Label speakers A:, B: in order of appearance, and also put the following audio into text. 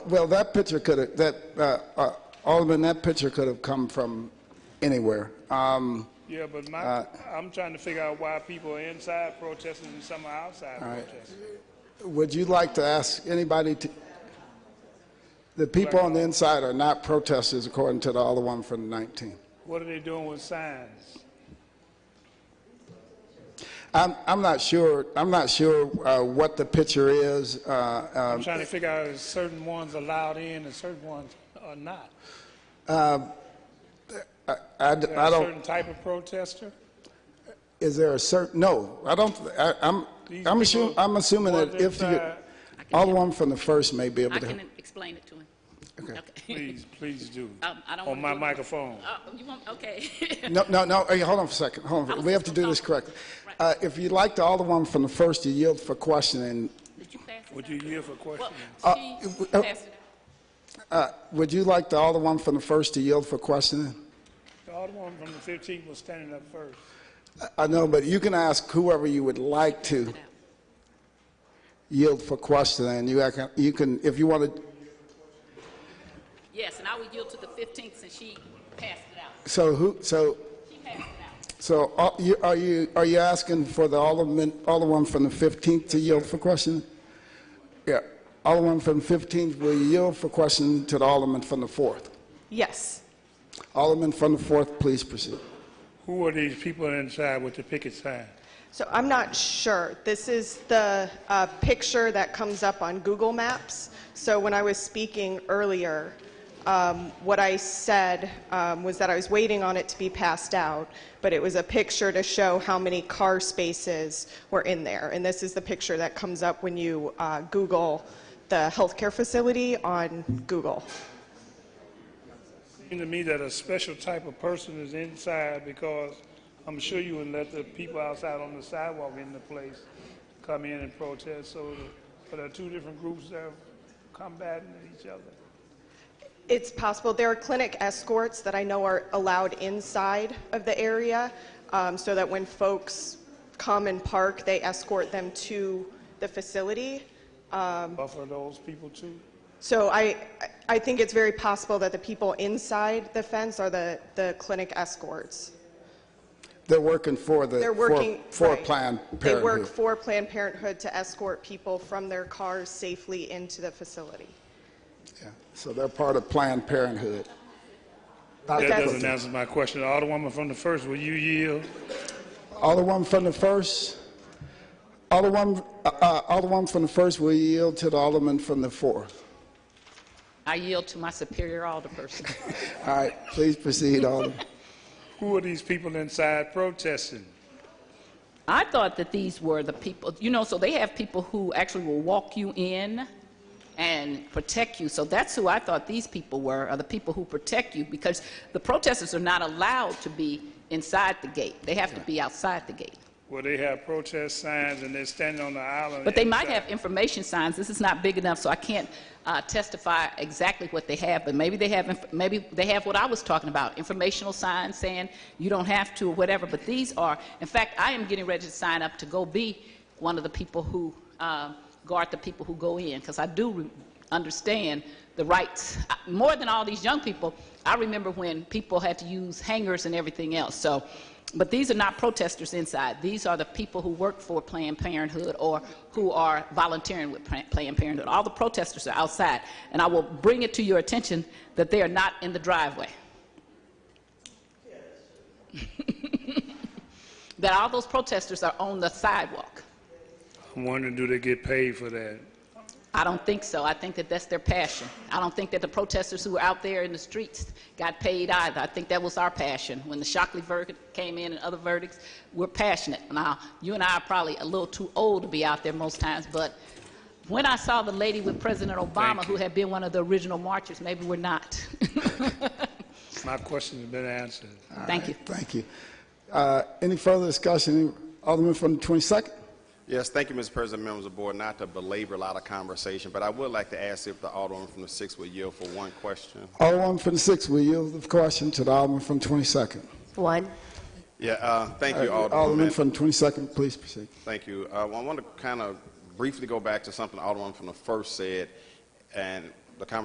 A: Well, that picture could have, that, uh, uh, Alderman, that picture could have come from anywhere. Um,
B: Yeah, but my, I'm trying to figure out why people are inside protesting and some are outside
A: right.
B: protesting.
A: Would you like to ask anybody to, the people on the inside are not protesters according to the other one from the 19th.
B: What are they doing with signs?
A: I'm, I'm not sure, I'm not sure uh, what the picture is. Uh, uh,
B: I'm trying to figure out if certain ones allowed in and certain ones are not.
A: I, d- I
B: A
A: don't,
B: certain type of protester?
A: is there a certain, no, I don't, I- I'm,
B: These
A: I'm assuming,
B: people
A: I'm assuming that
B: was
A: if you,
B: inside.
A: Alderman from the first may be able
C: I
A: to.
C: can explain it to him.
A: Okay.
B: Please, please do.
C: Um, I don't
B: On
C: wanna
B: my
C: do it.
B: microphone.
C: Uh, you want, okay.
A: No, no, no, hey, hold on for a second, hold on, for- we have to do this correctly. Uh, If you'd like the Alderman from the first to yield for questioning,
C: Did you pass it
B: Would
C: down?
B: you yield for
C: Well,
B: questioning?
C: she
A: uh, uh,
C: passed it
A: would you like the Alderman from the first to yield for questioning?
B: The Alderman from the 15th was standing up first.
A: I know, but you can ask whoever you would like to
C: out. It out.
A: yield for questioning, you can, you can, if you want to,
C: Yes, and I would yield to the 15th since she passed it out.
A: so who, so,
C: She passed it out.
A: so are you, are you, are you asking for the Alderman, Alderman from the 15th to yield for questioning? Yeah, Alderman from the 15th will yield for questioning to the Alderman from the 4th.
D: Yes.
A: Alderman from the 4th, please proceed.
B: Who are these people inside with the picket sign?
D: So I'm not sure. This is the uh, picture that comes up on Google Maps. So when I was speaking earlier, um, what I said um, was that I was waiting on it to be passed out, but it was a picture to show how many car spaces were in there. And this is the picture that comes up when you uh, Google the healthcare facility on Google.
B: Seems to me that a special type of person is inside because I'm sure you would let the people outside on the sidewalk in the place come in and protest. So there are two different groups that are combating each other.
D: It's possible. There are clinic escorts that I know are allowed inside of the area, um, so that when folks come and park, they escort them to the facility.
B: Buffer those people too.
D: So I, I think it's very possible that the people inside the fence are the, the clinic escorts.
A: They're working for the,
D: They're
A: for-
D: working.
A: for
D: right.
A: Planned
D: They work
A: Parenthood.
D: for Planned Parenthood to escort people from their cars safely into the facility.
A: Yeah. So they're part of Planned Parenthood. Not
B: That
D: That's-
B: doesn't answer my question. Alderwoman from the first, will you yield?
A: Alderman from the first, Alderman, uh, uh, Alderman from the first will yield to the Alderman from the fourth.
C: I yield to my superior alderperson.
A: All right, please proceed, Alderman.
B: Who are these people inside protesting?
C: I thought that these were the people, you know, so they have people who actually will walk you in and protect you. So that's who I thought these people were, are the people who protect you, because the protesters are not allowed to be inside the gate. They have to be outside the gate.
B: Well, they have protest signs and they're standing on the island.
C: But they might
B: inside.
C: have information signs. This is not big enough, so I can't uh, testify exactly what they have. But maybe they have, inf- maybe they have what I was talking about, informational signs saying you don't have to or whatever. But these are, in fact, I am getting ready to sign up to go be one of the people who uh, guard the people who go in, because I do re- understand the rights I- more than all these young people. I remember when people had to use hangers and everything else. So. But these are not protesters inside. These are the people who work for Planned Parenthood or who are volunteering with Plan- Planned Parenthood. All the protesters are outside. And I will bring it to your attention that they are not in the driveway. that all those protesters are on the sidewalk.
B: I'm wondering, do they get paid for that?
C: I don't think so. I think that that's their passion. I don't think that the protesters who were out there in the streets got paid either. I think that was our passion. When the Shockley verdict came in and other verdicts, we're passionate. Now, you and I are probably a little too old to be out there most times, but when I saw the lady with President Obama,
B: Thank
C: who
B: you.
C: had been one of the original marchers, maybe we're not.
B: My question has been answered.
C: Thank you.
A: Thank you. Uh, Any further discussion? Alderman from the 22nd?
E: Yes, thank you, Mr. President, members of the board. Not to belabor a lot of conversation, but I would like to ask if the Alderman from the sixth would yield for one question.
A: Alderman from the sixth will yield the question to the Alderman from the 22nd.
F: One.
E: Yeah, uh, thank you,
A: Alderman
E: Alderman.
A: from the 22nd, please proceed.
E: Thank you. Uh, well, I want to kind of briefly go back to something Alderman from the first said, and